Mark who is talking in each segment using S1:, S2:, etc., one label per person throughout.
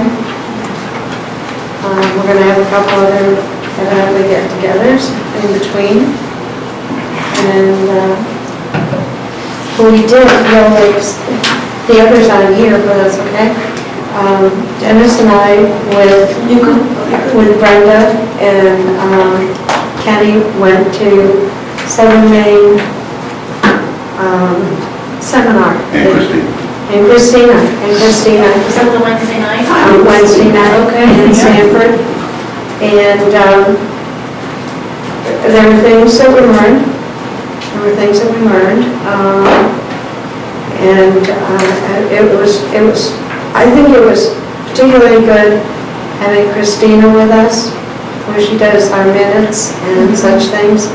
S1: Um, we're gonna have a couple other evidently get-togethers in between. And, uh, well, we did, no, there's, the others on here, but that's okay. Um, Dennis and I with, with Brenda and um, Kenny went to Southern Maine um, seminar.
S2: And Christine.
S1: And Christina, and Christina,
S3: Was that the Wednesday night?
S1: on Uh, Wednesday night in Sanford. And um, there were things that we learned, there were things that we learned. um, And uh, it was, it was, I think it was particularly good having Christina with us, where she does our minutes and such things.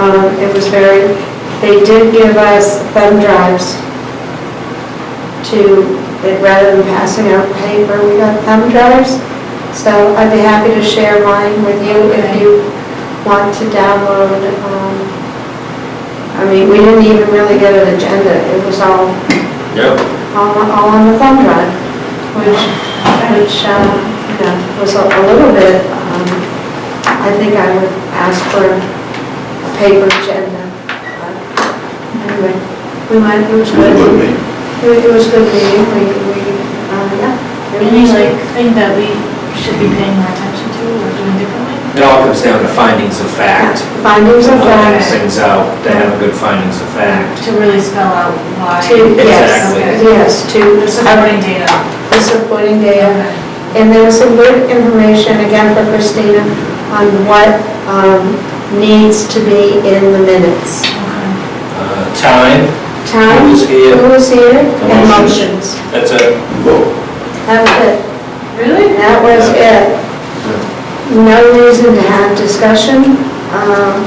S1: Um, It was very, they did give us thumb drives to, that rather than passing out paper, we got thumb drives. So I'd be happy to share mine with you if you want to download. um, I mean, we didn't even really get an agenda, it was all,
S4: Yep.
S1: all all on the thumb drive, which, which, uh, you know, was a a little bit, um, I think I would ask for a paper agenda. But Anyway, we might, it was
S2: It was a
S1: good.
S2: good meeting.
S1: It it was good meeting, we, we, uh, yeah. it
S3: Any
S1: was-
S3: like thing that we should be paying more attention to or doing differently?
S4: It all comes down to findings of fact.
S1: Findings of
S4: Finding
S1: facts.
S4: Things out, to have a good findings of fact.
S3: To really spell out why.
S1: To, yes,
S4: Exactly.
S3: Okay.
S1: yes, to
S3: The supporting data.
S1: the supporting data.
S3: Okay.
S1: And there was some good information, again for Christina, on what um, needs to be in the minutes.
S3: Okay.
S4: Uh, Time,
S1: Time.
S4: Who was here?
S1: Who was here, and
S4: Emotions.
S1: motions.
S4: that's it.
S2: Vote.
S1: That was it.
S3: Really?
S1: That was it. No reason to have discussion um,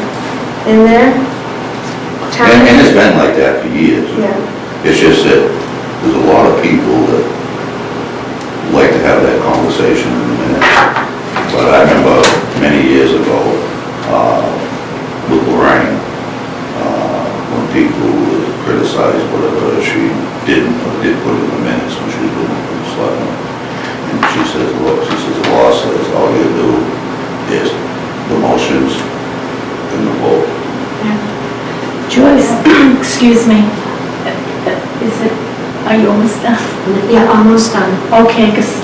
S1: in there.
S2: And, and
S1: Time.
S2: it's been like that for years.
S1: Yeah.
S2: It's just that there's a lot of people that like to have that conversation in a minute. But I remember many years ago, uh, with Lorraine, uh, when people would criticize whatever she didn't or did put in the minutes when she was doing it, it's like, and she says, look, she says, the law says all you do is the motions and the vote.
S5: Joyce, excuse me, is it, are you almost done?
S1: Yeah, almost done.
S5: Okay, because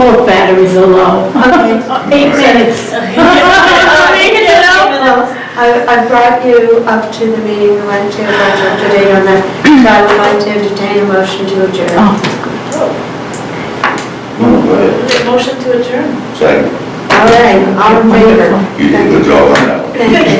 S5: both batteries are low.
S1: Okay.
S5: Eight minutes.
S1: Well, I I brought you up to the meeting we went to, but you're up to date on that. So I would like to entertain a motion to adjourn.
S5: Oh,
S2: No, go ahead.
S3: Motion to adjourn.
S2: Second,
S1: All right, all in favor?
S2: you did a good job on that one.
S1: Thank you.